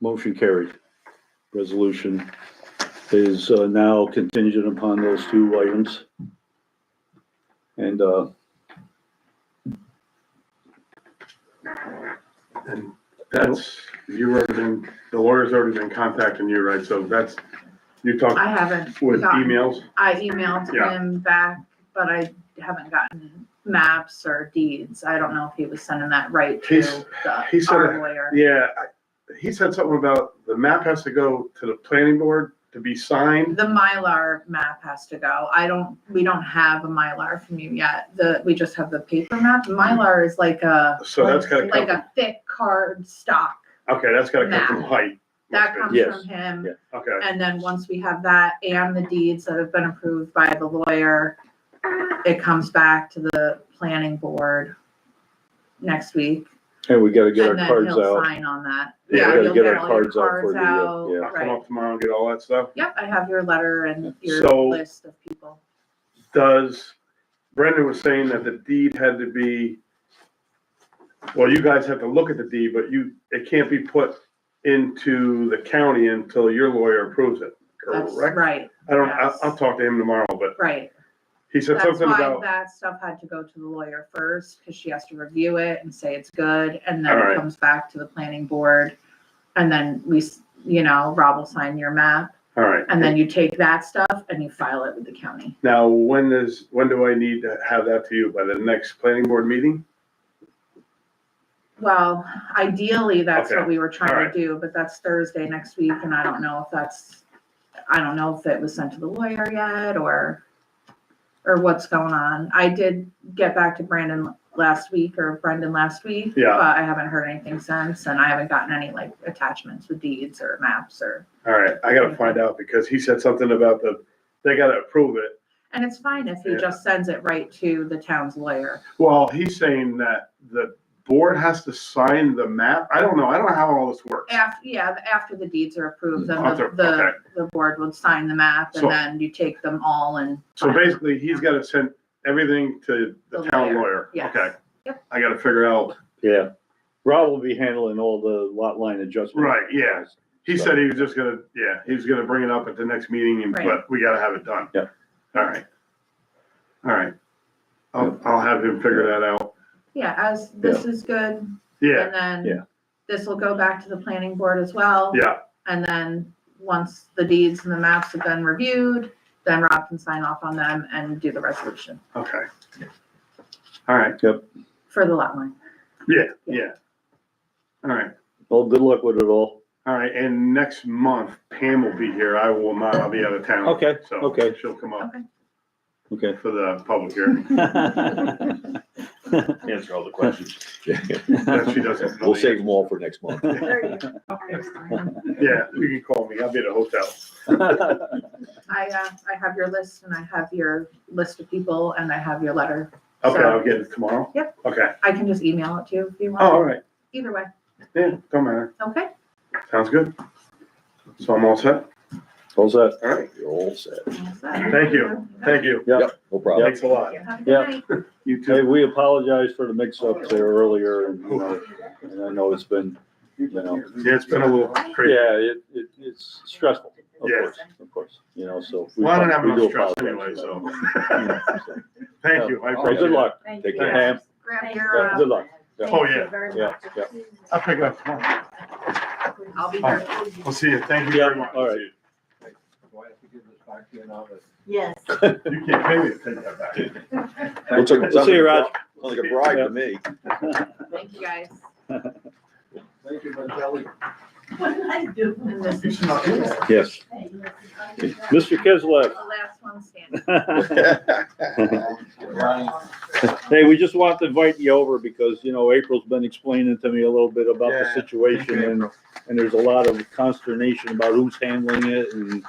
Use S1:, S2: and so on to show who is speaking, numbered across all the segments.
S1: Motion carried. Resolution is uh, now contingent upon those two items. And, uh,
S2: And that's, you already been, the lawyer's already been contacting you, right? So that's, you talked
S3: I haven't.
S2: with
S3: gotten-
S2: emails?
S3: I emailed
S2: Yeah.
S3: him back, but I haven't gotten maps or deeds. I don't know if he was sending that right to
S2: He's- he
S3: the,
S2: said
S3: our
S2: it.
S3: lawyer.
S2: Yeah, I- he said something about the map has to go to the planning board to be signed.
S3: The Mylar map has to go. I don't, we don't have a Mylar from you yet. The, we just have the paper map. Mylar is like a,
S2: So that's gotta come,
S3: like
S2: from-
S3: a thick card stock.
S2: okay, that's gotta come from White.
S3: That comes
S1: Yes.
S3: from him.
S1: Yeah.
S2: Okay,
S3: And then once we have that and the deeds that have been approved by the lawyer, it comes back to the planning board next week.
S1: and we gotta get our
S3: And then
S1: cards
S3: he'll
S1: out.
S3: sign on that.
S2: Yeah, we
S3: Yeah,
S2: gotta
S3: you'll
S1: get our
S3: all your
S1: cards out for the, uh,
S3: out,
S1: yeah.
S2: I'll come
S3: Right.
S2: up tomorrow and get all that stuff.
S3: Yep, I have your letter and your
S2: So-
S3: list of people.
S2: Does, Brendan was saying that the deed had to be, well, you guys have to look at the deed, but you, it can't be put into the county until your lawyer approves it,
S3: That's
S2: correct?
S3: right,
S2: I don't, I, I'll
S3: yes.
S2: talk to him tomorrow, but
S3: right.
S2: he said
S3: That's
S2: something
S3: why
S2: about,
S3: that stuff had to go to the lawyer first, because she has to review it and say it's good, and then
S2: Alright.
S3: it comes back to the planning board. And then we, s- you know, Rob will sign your map,
S2: all right.
S3: And then you take that stuff and you file it with the county.
S2: Now, when is, when do I need to have that to you? By the next planning board meeting?
S3: Well, ideally, that's
S2: Okay.
S3: what we were trying
S2: Alright.
S3: to do, but that's Thursday next week, and I don't know if that's, I don't know if it was sent to the lawyer yet, or, or what's going on. I did get back to Brandon last week, or Brendan last week.
S2: Yeah.
S3: But I haven't heard anything since, and I haven't gotten any like attachments with deeds or maps or,
S2: All right, I gotta find out because he said something about the, they gotta approve it.
S3: and it's fine if he
S2: Yeah.
S3: just sends it right to the town's lawyer.
S2: Well, he's saying that the board has to sign the map. I don't know. I don't know how all this works.
S3: After, yeah, after the deeds are approved, then
S2: After-
S3: the, the,
S2: okay.
S3: the board would sign the map
S2: So-
S3: and then you take them all and.
S2: So basically, he's gotta send everything to the
S3: The
S2: town
S3: lawyer,
S2: lawyer.
S3: yes.
S2: Okay.
S3: Yep.
S2: I gotta figure out.
S1: Yeah. Rob will be handling all the lot line adjustments.
S2: Right, yeah. He
S1: So-
S2: said he was just gonna, yeah, he was gonna bring it up at the next meeting, and-
S3: Right.
S2: but we gotta have it done.
S1: Yeah.
S2: All right. All right. I'll, I'll have him figure that out.
S3: Yeah, as this is good,
S2: Yeah,
S3: and then
S1: Yeah.
S3: this will go back to the planning board as well.
S2: yeah.
S3: And then, once the deeds and the maps have been reviewed, then Rob can sign off on them and do the resolution
S2: Okay. All right.
S3: for the lot line.
S2: Yeah, yeah. All right.
S1: Well, good luck with it all.
S2: All right, and next month Pam will be here. I will not, I'll be out of town.
S1: Okay,
S2: So
S1: okay.
S2: She'll come up
S1: Okay.
S2: for the public hearing.
S4: Answer all the questions.
S2: That she doesn't.
S4: We'll save them all for next month.
S3: There you go.
S2: Yeah, you can call me. I'll be at a hotel.
S3: I, uh, I have your list and I have your list of people and I have your letter.
S2: Okay,
S3: So-
S2: I'll get it tomorrow.
S3: Yep.
S2: Okay.
S3: I can just email it to you if you
S2: Oh, all
S3: want,
S2: right.
S3: either way,
S2: Yeah, don't matter.
S3: okay?
S2: Sounds good. So I'm all set.
S1: All set.
S2: All right.
S4: You're all set.
S3: Thank
S2: you. Thank you.
S4: No problem.
S2: Thanks a lot.
S1: Yeah.
S2: You
S1: Hey,
S2: too.
S1: we apologize for the mix-up there earlier, and, you know, and I know it's been, you know,
S2: Yeah, it's been a little crazy.
S1: yeah, it, it, it's stressful, of
S2: Yes.
S1: course, of course, you know, so. we
S2: Well, I don't have
S1: we
S2: enough
S1: do
S2: stress anyway,
S1: apologize.
S2: so.
S1: Yeah, so.
S2: Thank you. I
S1: Well,
S2: appreciate
S1: good
S2: it.
S1: luck,
S5: Thank
S4: Take
S5: you.
S4: care.
S1: Pam,
S3: Grab
S1: Yeah,
S3: your,
S1: good
S3: uh,
S1: luck,
S2: Oh, yeah.
S1: yeah, yeah.
S2: I'll pick it up tomorrow.
S3: I'll be here.
S2: We'll see you. Thank you
S1: Yeah,
S2: very much.
S1: all right.
S2: See
S6: Do I have to give this back to you now? that-
S5: Yes.
S2: you. You can't pay me to take that back.
S4: Looks like-
S1: We'll see you, Raj.
S4: Sounds like a bribe to me.
S3: Thank you guys.
S6: Thank you, Ms. Kelly.
S5: What did I do?
S3: And this
S2: You
S3: is
S2: should
S3: the
S2: not do that.
S4: Yes.
S1: Mr.
S3: last one standing.
S1: Kislev.
S6: Ronnie,
S1: Hey, we just want to invite you over because, you know, April's been explaining to me a little bit about the
S6: Yeah.
S1: situation and, and there's a lot of consternation about who's handling it and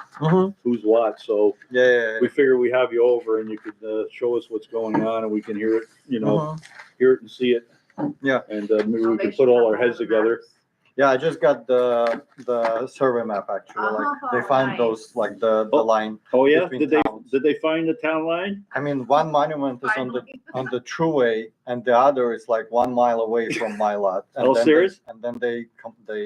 S1: who's what, so
S6: Yeah.
S1: Mm-hmm. we figure we have you over and you could, uh, show us what's going on and we can hear it, you
S6: Uh-huh.
S1: know, hear it and see it.
S6: Yeah.
S1: And, uh, maybe we can put all our heads together.
S6: Yeah, I just got the, the survey map actually, like, they
S3: Oh,
S6: found
S3: nice.
S6: those, like, the, the
S1: Oh.
S6: line.
S1: Oh, yeah?
S6: Between
S1: Did they,
S6: towns.
S1: did they find the town line?
S6: I mean, one monument is on the,
S3: Finally.
S6: on the true way and the other is like one mile away from my lot. And
S1: Oh,
S6: then they-
S1: serious?
S6: And then they, com- they